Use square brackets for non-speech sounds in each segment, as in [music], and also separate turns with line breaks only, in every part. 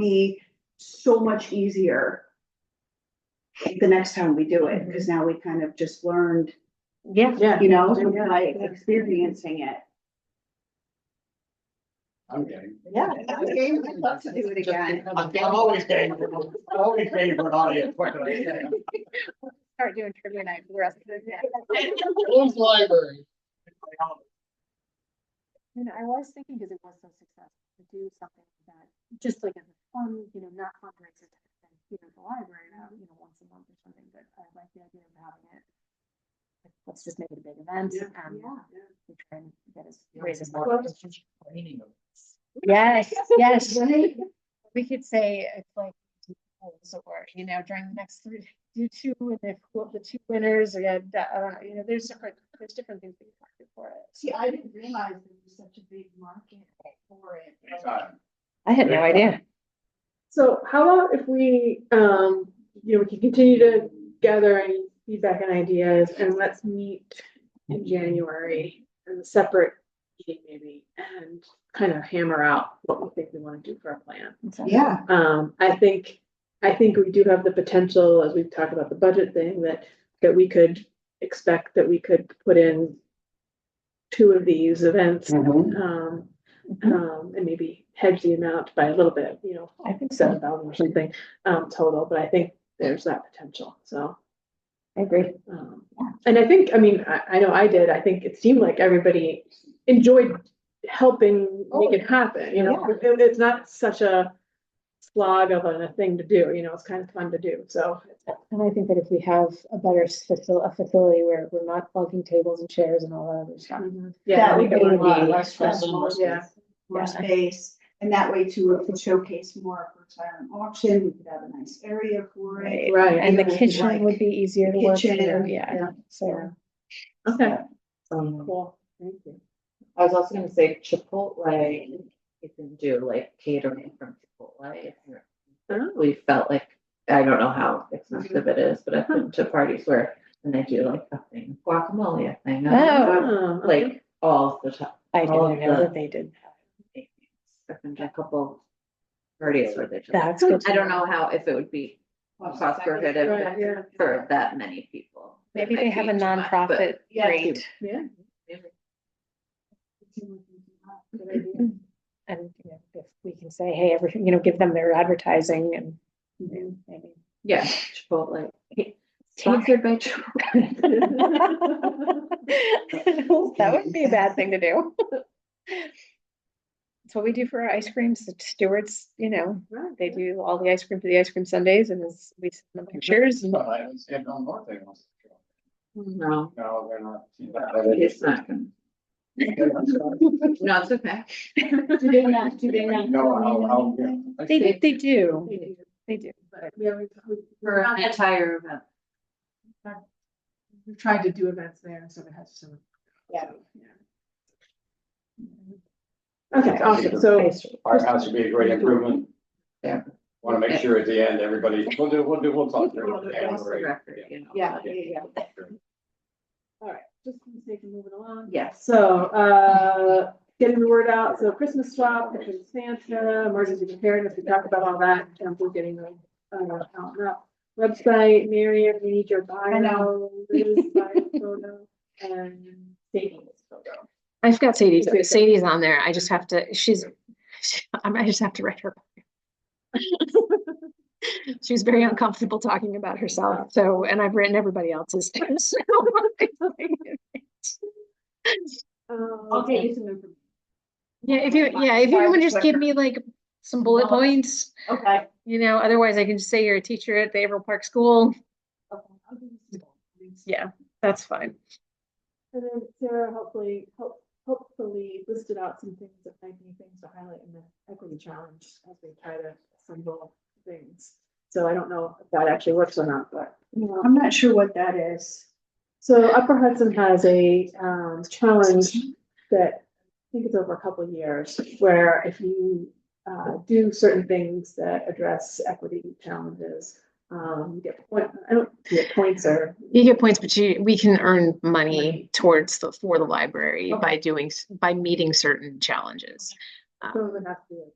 be so much easier the next time we do it, because now we kind of just learned,
Yeah.
Mm-hmm. Yeah.
you know, by experiencing it.
I'm game.
Yeah.
I'm game. I'd love to do it again.
I'm I'm always game, I'm always game for an audience, what can I say?
Start doing trivia night for the rest of the day.
Old library.
And I was thinking, because it was so successful, to do something like that, just like as a fun, you know, not fundraiser, type of thing, here at the library, now, you know, once a month or something, but I like the idea of having it. like, Let's just make it a big event, um, we try and get as, raise as much. [laughs] Yes, yes. We could say it's like do polls or, you know, during the next three, do two and if well, the two winners are, gonna da- I don't know, you know, there's different, there's different things we can market for it.
See, I didn't realize there was such a big market for it.
I had
no
idea.
So how about if we, um, you know, we can continue to gather any feedback and ideas and let's meet in January in a separate meeting maybe and kind of hammer out what we think we want to do for our plan.
Yeah.
Um, I think, I think we do have the potential, as we've talked about the budget thing, that, that we could expect that we could put in two of these events, um, um, and maybe hedge the amount by a little bit, you know, I think seven thousand or something, um, total, but I think there's that potential, so.
I agree.
Um, and I think, I mean, I, I know I did, I think it seemed like everybody enjoyed helping
Oh,
make it happen, you know? It- it's not such a slog of a thing to do, you know, it's kind of fun to do, so.
And I think that if we have a better facility, a facility where we're not plugging tables and chairs and all that other stuff.
Yeah,
That
we
would
could-
be a lot
Yeah.
less stressful.
Yeah.
more space, and that way too, it could showcase more for silent auction, we could have a nice area for it.
right,
And the
It would be
kitchen
like
would be easier to work
kitchen,
through, yeah,
yeah,
so.
okay,
Um,
cool.
thank you. I was also gonna say Chipotle, you can do like catering from Chipotle. if you're- We felt like, I don't know how expensive it is, but I've been to parties where, and they do like a thing, guacamole, a thing.
Oh.
Oh, okay.
Like all the time.
I
All
didn't
of
know
the-
that they did.
I've been to a couple parties where they just, I
That's good. to
don't know how, if it would be cost
Right, yeah.
prohibitive for that many people. It
Maybe they
might
have
be
a
too much,
nonprofit
but-
Yeah.
rate
Yeah,
and you know, if we can say, hey, every, you know, give them their advertising and and maybe.
Yeah, Chipotle. Sponsored by Chipotle.
[laughs] That wouldn't be a bad thing to do. It's what we do for our ice creams. The stewards, you know,
right.
they do all the ice cream for the ice cream Sundays and as we send them pictures and.
But I was heading on north, they want to.
No,
No, they're not.
it's not. gonna- No, it's okay.
Do they not, do they not?
No, I'll, I'll, yeah.
They, they do,
They do,
they do.
but we always- we-
For an entire event.
We've tried to do events there, so it has some.
Yeah.
Okay, awesome, so,
Firehouse would be a great improvement.
Yeah.
Want to make sure at the end, everybody, we'll do, we'll do, we'll talk. during
Off
the
the
January.
record, you know.
Yeah,
but-
yeah,
all right, just for the sake of moving along.
Yes.
So, uh, getting the word out, so Christmas swap, Christmas Santa, emergency preparedness, we talked about all that, and we're getting the, uh, out and up. Website, Mary, we need your
I
bio, Liz, bio photo, and Sadie's photo.
I've got Sadie's,
Okay.
Sadie's on there. I just have to, she's, [laughs] I might just have to write her. [laughs] She was very uncomfortable talking about herself, so, and I've written everybody else's. [laughs] too, so it's like-
Um,
I'll get you some information.
Yeah, if you, yeah, if you
Five
want to just give
quicker.
me like some bullet points,
Okay.
you know, otherwise I can just say you're a teacher at the Averill Park School.
Okay, I'll give you some more.
Yeah, that's fine.
And then Sarah hopefully, hope- hopefully listed out some things that might be things to highlight in the equity challenge as we try to assemble things. So I don't know if that actually works or not, but.
I'm not sure what that is.
So Upper Hudson has a um challenge that I think it's over a couple of years where if you uh do certain things that address equity challenges, um you get point, I don't you get points or
You get points, but you, we can earn money
Money.
towards the, for the library
Okay.
by doing, s- by meeting certain challenges. Um,
some of it has to do with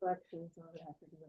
collections, some of it has to do with